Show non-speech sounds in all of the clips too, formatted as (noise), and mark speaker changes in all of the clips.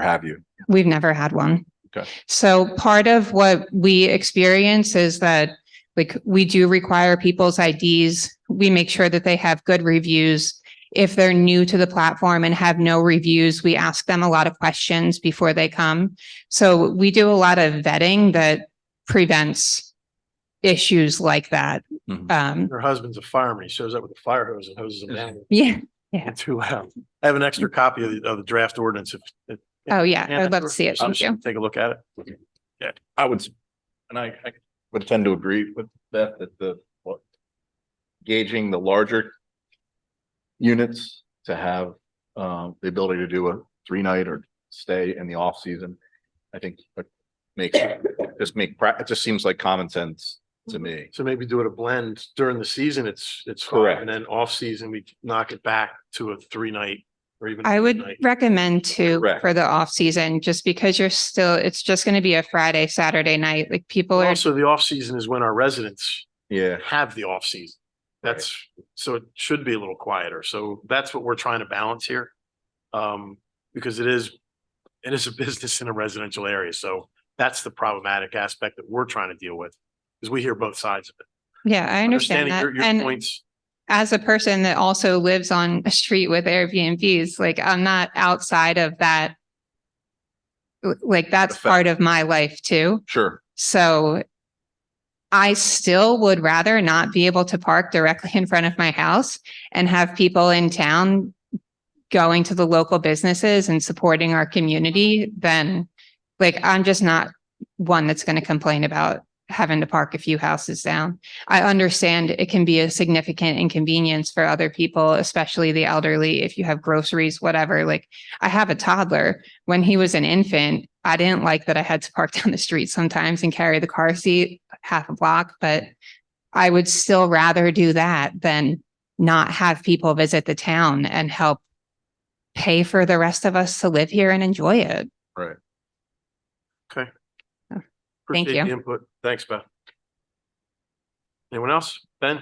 Speaker 1: have you?
Speaker 2: We've never had one.
Speaker 1: Okay.
Speaker 2: So part of what we experience is that like we do require people's IDs. We make sure that they have good reviews. If they're new to the platform and have no reviews, we ask them a lot of questions before they come. So we do a lot of vetting that prevents issues like that.
Speaker 1: Mhm.
Speaker 2: Um,
Speaker 3: Her husband's a fireman. He shows up with a fire hose and hoses them down
Speaker 2: yeah.
Speaker 3: in two hours. I have an extra copy of the, of the draft ordinance. if- if-
Speaker 2: Oh, yeah.
Speaker 3: Yeah,
Speaker 2: I'd love to see it.
Speaker 3: so
Speaker 2: Thank you.
Speaker 3: Take a look at it.
Speaker 1: I would, s- and I, I would tend to agree with that, that the, what, gauging the larger units to have, um, the ability to do a three-night or stay in the off-season, I think, but makes, just make, prac- it just seems like common sense to me.
Speaker 3: So maybe do it a blend during the season. It's, it's. fine,
Speaker 1: Correct.
Speaker 3: And then off season, we knock it back to a three night or even.
Speaker 2: I
Speaker 3: a
Speaker 2: would
Speaker 3: night.
Speaker 2: recommend to
Speaker 1: Correct.
Speaker 2: for the off season, just because you're still, it's just going to be a Friday, Saturday night. Like people are,
Speaker 3: Also, the off season is when our residents
Speaker 1: Yeah.
Speaker 3: have the off season. That's, so it should be a little quieter. So that's what we're trying to balance here. Um, because it is, it is a (laughs) business in a residential area. So that's the problematic aspect that we're trying to deal with. Because we hear both sides of it.
Speaker 2: yeah, I understand that.
Speaker 3: Understanding your, your
Speaker 2: And
Speaker 3: points.
Speaker 2: as a person that also lives on a street with Airbnbs, like I'm not outside of that. L- Like that's
Speaker 1: Effect.
Speaker 2: part of my life too.
Speaker 1: Sure.
Speaker 2: So I still would rather not be able to park directly in front of my house and have people in town going to the local businesses and supporting our community than like, I'm just not one that's going to complain about having to park a few houses down. I understand it can be a significant inconvenience for other people, especially the elderly, if you have groceries, whatever. Like I have a toddler when he was an infant, I didn't like that I had to park (laughs) down the street sometimes and carry the car seat half a block, but I would still rather do that than not have people visit the town and help pay for the rest of us to live here and enjoy it.
Speaker 1: Right.
Speaker 2: Thank
Speaker 3: Appreciate
Speaker 2: you.
Speaker 3: the Input. Thanks, Beth. Anyone else? Ben?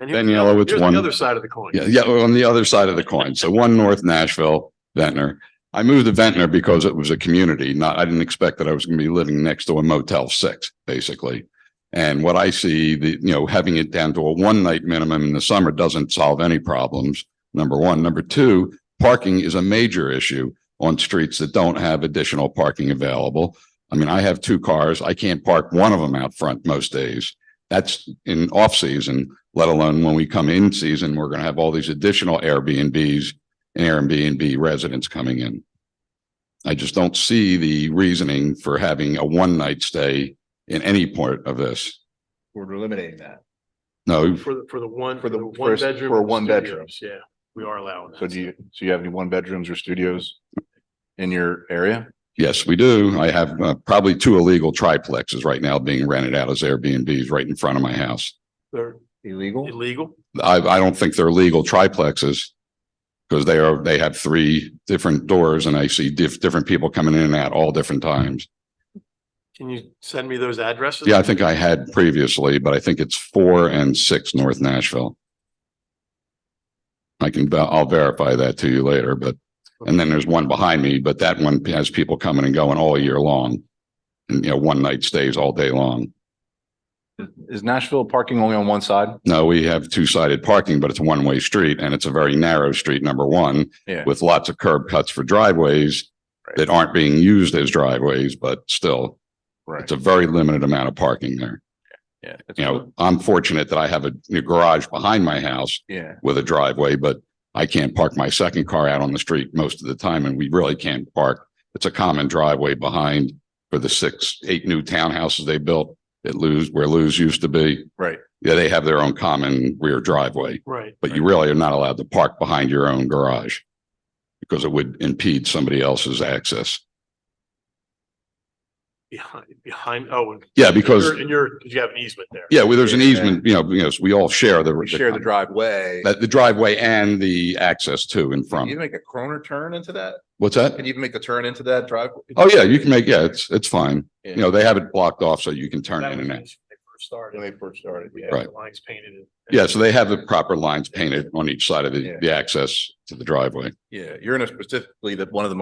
Speaker 3: And here's
Speaker 4: Ben
Speaker 3: the
Speaker 4: Yellow,
Speaker 3: other-
Speaker 4: it's
Speaker 3: here's
Speaker 4: one-
Speaker 3: The other side of the coin.
Speaker 4: Yeah, yeah, on the other side of the coin. So one North Nashville, Ventnor. I moved to Ventnor because it was a community, not, I didn't expect that I was going to be living next to a Motel Six, basically. And what I see, the, you know, having it down to a one night minimum in the summer doesn't solve any problems. Number one. Number two, parking is a major issue on streets that don't have additional parking available. I mean, I have two cars. I can't park one of them out front most days. That's in off season let alone when we come in season, we're going to have all these additional Airbnbs and Airbnb residents coming in. I just don't see the reasoning for having a one night stay in any part of this.
Speaker 1: We're eliminating that.
Speaker 4: No,
Speaker 3: For the, for the one.
Speaker 1: For the
Speaker 3: one
Speaker 1: first-
Speaker 3: bedroom
Speaker 1: for
Speaker 3: and
Speaker 1: one bedroom.
Speaker 3: studios, Yeah, we are allowing that.
Speaker 1: So do you, so you have any one bedrooms or studios in your area?
Speaker 4: yes, we do. I have uh, probably two illegal triplexes right now being rented out as Airbnbs right in front of my house.
Speaker 3: They're
Speaker 1: Illegal?
Speaker 3: illegal?
Speaker 4: I, I don't think they're legal triplexes because they are, they have three different doors and I see diff, different people coming in and out all different times.
Speaker 3: Can you send me those addresses?
Speaker 4: Yeah, I think I had previously, but I think it's four and six North Nashville. I can, ver- I'll verify that to you later, but, and then there's one behind me, but that one has people coming and going all year long. And, you know, one night stays all day long.
Speaker 1: Is Nashville parking only on one side?
Speaker 4: No, we have two sided parking, but it's a one way street and it's a very narrow street, number one,
Speaker 1: Yeah.
Speaker 4: with lots of curb cuts for driveways that aren't being used as driveways, but still,
Speaker 1: Right.
Speaker 4: it's a very limited amount of parking there.
Speaker 1: Yeah.
Speaker 4: you know, I'm fortunate that I have a a garage behind my house
Speaker 1: Yeah.
Speaker 4: with a driveway, but I can't park my second car out on the street most of the time and we really can't park. It's a common driveway behind for the six, eight new townhouses they built at Lou's, where Lou's used to be.
Speaker 1: Right.
Speaker 4: Yeah, they have their own common rear driveway,
Speaker 3: Right.
Speaker 4: but you really are not allowed to park behind your own garage because it would impede somebody else's access.
Speaker 3: Behind, behind, oh. and-
Speaker 4: Yeah, because,
Speaker 3: And you're, because you have an easement there.
Speaker 4: yeah, well, there's an
Speaker 1: Yeah.
Speaker 4: easement, you know, you know, so we all share the.
Speaker 1: We share the driveway.
Speaker 4: That the driveway and the access to and
Speaker 1: Can you
Speaker 4: from.
Speaker 1: make a corner turn into that?
Speaker 4: What's that?
Speaker 1: Can you even make the turn into that driveway?
Speaker 4: Oh, yeah, you can make, yeah, it's, it's fine.
Speaker 1: Yeah.
Speaker 4: You know, they have it blocked off so you can turn
Speaker 3: That
Speaker 4: in
Speaker 3: was
Speaker 4: and
Speaker 3: when
Speaker 4: out.
Speaker 3: They first started.
Speaker 1: When they first started,
Speaker 3: We
Speaker 1: yeah.
Speaker 3: had
Speaker 4: Right.
Speaker 3: the Lines painted. and-
Speaker 4: Yeah, so they have the proper lines painted on each side of
Speaker 1: Yeah.
Speaker 4: the, the access to the driveway.
Speaker 1: Yeah, you're in a specifically that one of the